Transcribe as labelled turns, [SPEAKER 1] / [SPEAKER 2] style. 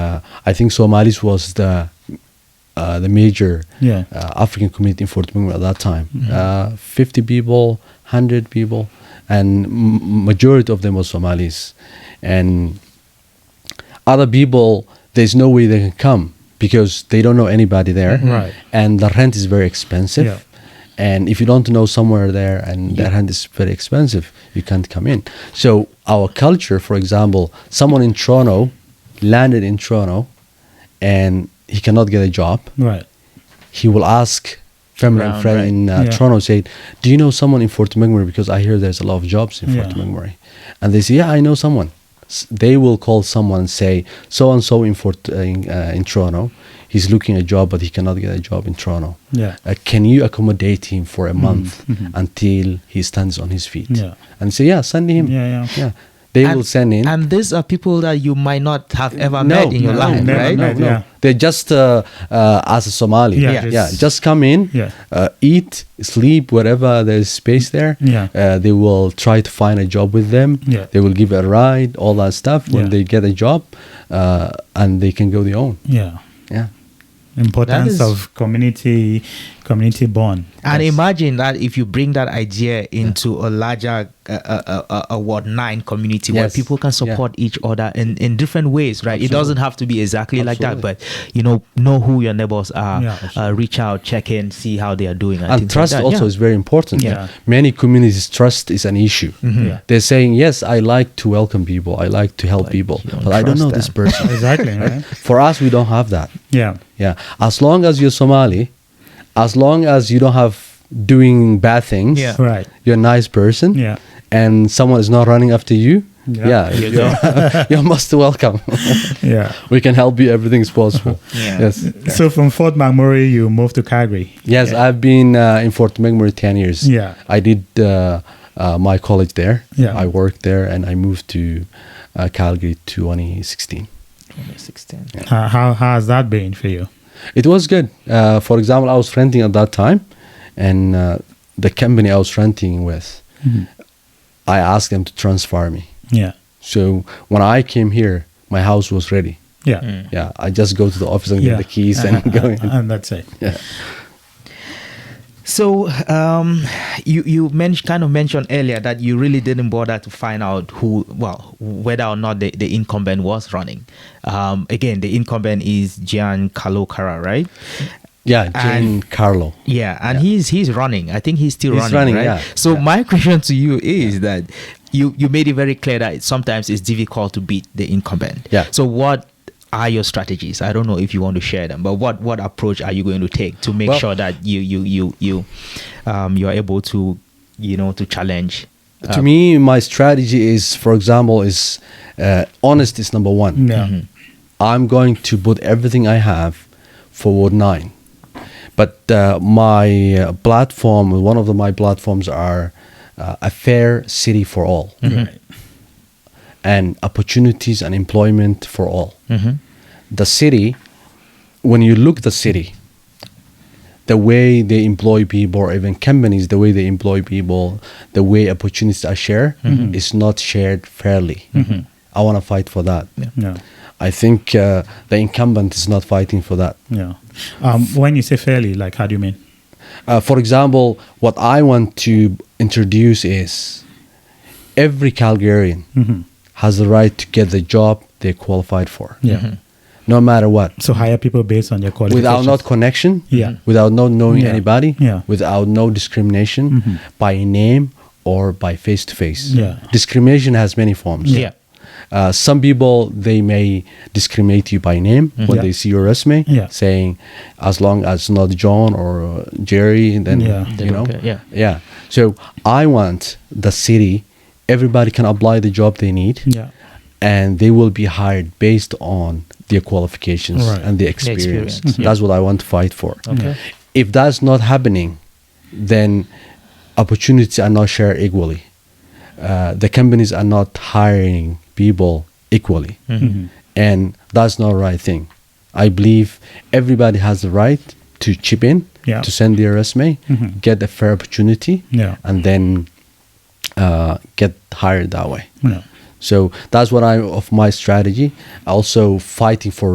[SPEAKER 1] uh, I think Somalis was the uh, the major
[SPEAKER 2] Yeah. Mm-hmm.
[SPEAKER 1] uh, African community in Fort Benning at that time. Uh, 50 people, 100 people, and m- majority of them were Somalis. And other people, there's no way they can come because they don't know anybody there.
[SPEAKER 2] Right.
[SPEAKER 1] And the rent is very expensive.
[SPEAKER 2] Yeah.
[SPEAKER 1] And if you don't know somewhere there and the rent is very expensive, you can't come in. So our culture, for example, someone in Toronto landed in Toronto and he cannot get a job
[SPEAKER 2] Right.
[SPEAKER 1] he will ask family and
[SPEAKER 3] Around,
[SPEAKER 1] friend
[SPEAKER 3] right.
[SPEAKER 1] in uh,
[SPEAKER 2] Yeah.
[SPEAKER 1] Toronto, say, "Do you know someone in Fort McMurray? Because I hear there's a lot of jobs in Fort
[SPEAKER 2] Yeah.
[SPEAKER 1] McMurray." And they say, "Yeah, I know someone." S- they will call someone and say, "So and so in Fort uh, in, uh, in Toronto, he's looking a job, but he cannot get a job in Toronto.
[SPEAKER 2] Yeah. Mm-hmm.
[SPEAKER 1] Uh, can you accommodate him for a month until he stands on his feet?"
[SPEAKER 2] Yeah.
[SPEAKER 1] And say, "Yeah, send him."
[SPEAKER 2] Yeah, yeah.
[SPEAKER 1] yeah. They will
[SPEAKER 3] and,
[SPEAKER 1] send in.
[SPEAKER 3] And these are people that you might not have ever met in your
[SPEAKER 1] no,
[SPEAKER 3] life,
[SPEAKER 2] never
[SPEAKER 3] right?
[SPEAKER 2] met.
[SPEAKER 1] No,
[SPEAKER 2] Yeah.
[SPEAKER 1] They're just uh, uh, as a Somali.
[SPEAKER 2] Yeah,
[SPEAKER 1] Yeah,
[SPEAKER 2] just-
[SPEAKER 1] yeah, just come in,
[SPEAKER 2] Yeah.
[SPEAKER 1] uh, eat, sleep, wherever there's space there.
[SPEAKER 2] Yeah.
[SPEAKER 1] Uh, they will try to find a job with them.
[SPEAKER 2] Yeah.
[SPEAKER 1] They will give a ride, all that stuff when
[SPEAKER 2] Yeah.
[SPEAKER 1] they get a job uh, and they can go their own.
[SPEAKER 2] Yeah.
[SPEAKER 1] Yeah.
[SPEAKER 2] Importance
[SPEAKER 3] is-
[SPEAKER 2] of community community bond.
[SPEAKER 3] And
[SPEAKER 2] Yes.
[SPEAKER 3] imagine that if you bring that idea into a larger uh, uh, uh, uh, Ward 9 community where
[SPEAKER 1] Yes.
[SPEAKER 3] people can
[SPEAKER 1] Yeah.
[SPEAKER 3] support each other in, in different ways, right? It doesn't have to be exactly like that,
[SPEAKER 1] Absolutely.
[SPEAKER 3] but you know, know who your neighbors are,
[SPEAKER 2] Yeah.
[SPEAKER 3] uh, reach out, check in, see how they are doing.
[SPEAKER 1] and
[SPEAKER 3] things like
[SPEAKER 1] trust
[SPEAKER 3] that.
[SPEAKER 1] also
[SPEAKER 3] Yeah. Mm-hmm.
[SPEAKER 1] is very important.
[SPEAKER 2] Yeah.
[SPEAKER 1] Many communities trust is an issue.
[SPEAKER 2] Yeah.
[SPEAKER 1] They're saying, yes, I like to welcome people, I like to help people,
[SPEAKER 3] you don't
[SPEAKER 1] but I don't
[SPEAKER 3] trust
[SPEAKER 1] know this
[SPEAKER 3] them.
[SPEAKER 1] person.
[SPEAKER 2] Exactly. right?
[SPEAKER 1] For us, we don't have that.
[SPEAKER 2] Yeah.
[SPEAKER 1] Yeah. As long as you're Somali, as long as you don't have doing bad things,
[SPEAKER 3] Yeah.
[SPEAKER 2] Right.
[SPEAKER 1] you're a nice person,
[SPEAKER 2] Yeah.
[SPEAKER 1] and someone is not running after you,
[SPEAKER 2] Yeah.
[SPEAKER 1] yeah, you're, you're most welcome.
[SPEAKER 2] Yeah.
[SPEAKER 1] we can help you, everything's possible.
[SPEAKER 3] Yeah.
[SPEAKER 1] Yes.
[SPEAKER 2] So from Fort McMurray, you moved to Calgary.
[SPEAKER 1] Yes, I've been uh, in Fort McMurray 10 years.
[SPEAKER 2] Yeah.
[SPEAKER 1] I did uh, uh, my college there.
[SPEAKER 2] Yeah.
[SPEAKER 1] I worked there and I moved to uh, Calgary 2016.
[SPEAKER 3] 16.
[SPEAKER 2] Uh, how, how has that been for you?
[SPEAKER 1] It was good. Uh, for example, I was renting at that time, and uh, the company I was renting with, I asked them to transfer me.
[SPEAKER 2] Yeah.
[SPEAKER 1] So when I came here, my house was ready.
[SPEAKER 2] Yeah.
[SPEAKER 1] Yeah, I just go to the office and
[SPEAKER 2] yeah. Uh,
[SPEAKER 1] get the keys and go in.
[SPEAKER 2] And that's it.
[SPEAKER 1] Yeah.
[SPEAKER 3] So um, you you men- kind of mentioned earlier that you really didn't bother to find out who well whether or not the, the incumbent was running. Um, again, the incumbent is Giancarlo Cara, right?
[SPEAKER 1] Yeah,
[SPEAKER 3] And-
[SPEAKER 1] Giancarlo.
[SPEAKER 3] Yeah, and he's he's running. I think he's still
[SPEAKER 1] He's running,
[SPEAKER 3] running, right?
[SPEAKER 1] yeah.
[SPEAKER 3] So my question to you is that you you made it very clear that sometimes it's difficult to beat the incumbent.
[SPEAKER 1] Yeah.
[SPEAKER 3] So what are your strategies? I don't know if you want to share them, but what what approach are you going to take to make
[SPEAKER 1] Well-
[SPEAKER 3] sure that you you you you um you are able to you know to challenge?
[SPEAKER 1] to me, my strategy is, for example, is uh, honest is number one.
[SPEAKER 2] Yeah.
[SPEAKER 1] Mm-hmm. I'm going to put everything I have for Ward 9. But uh, my uh, platform, one of the, my platforms are uh, a fair city for all
[SPEAKER 2] Right.
[SPEAKER 1] and opportunities and employment for all. The city, when you look the city, the way they employ people or even companies, the way they employ people, the way opportunities are shared is not shared fairly. I want to fight for that.
[SPEAKER 2] Yeah.
[SPEAKER 1] I think uh, the incumbent is not fighting for that.
[SPEAKER 2] Yeah. Um, when you say fairly, like, how do you mean?
[SPEAKER 1] Uh, for example, what I want to introduce is every Calgarian has the right to get the job they're qualified for,
[SPEAKER 2] Yeah.
[SPEAKER 1] no matter what.
[SPEAKER 2] So hire people based on your qualifications.
[SPEAKER 1] Without not connection,
[SPEAKER 2] Yeah.
[SPEAKER 1] without not knowing
[SPEAKER 2] Yeah.
[SPEAKER 1] anybody,
[SPEAKER 2] Yeah. Mm-hmm.
[SPEAKER 1] without no discrimination by name or by face to face.
[SPEAKER 2] Yeah.
[SPEAKER 1] Discrimination has many forms.
[SPEAKER 3] Yeah.
[SPEAKER 1] Uh, some people they may discriminate you by name when
[SPEAKER 2] Mm-hmm. Yeah.
[SPEAKER 1] they see your resume,
[SPEAKER 2] Yeah.
[SPEAKER 1] saying as long as not John or uh, Jerry, then
[SPEAKER 2] Yeah.
[SPEAKER 3] They
[SPEAKER 1] you know,
[SPEAKER 3] don't care, yeah.
[SPEAKER 1] yeah. So I want the city, everybody can apply the job they need,
[SPEAKER 2] Yeah.
[SPEAKER 1] and they will be hired based on their qualifications
[SPEAKER 2] Right.
[SPEAKER 1] and their
[SPEAKER 3] experience,
[SPEAKER 1] experience.
[SPEAKER 3] yeah.
[SPEAKER 1] That's what I want to fight for.
[SPEAKER 3] Okay.
[SPEAKER 1] If that's not happening, then opportunities are not shared equally. Uh, the companies are not hiring people equally,
[SPEAKER 2] Mm-hmm.
[SPEAKER 1] Mm-hmm. and that's not the right thing. I believe everybody has the right to chip in,
[SPEAKER 2] Yeah.
[SPEAKER 1] to send their resume,
[SPEAKER 2] Mhm.
[SPEAKER 1] get a fair opportunity,
[SPEAKER 2] Yeah.
[SPEAKER 1] and then uh, get hired that way.
[SPEAKER 2] Yeah.
[SPEAKER 1] So that's what I of my strategy. Also fighting for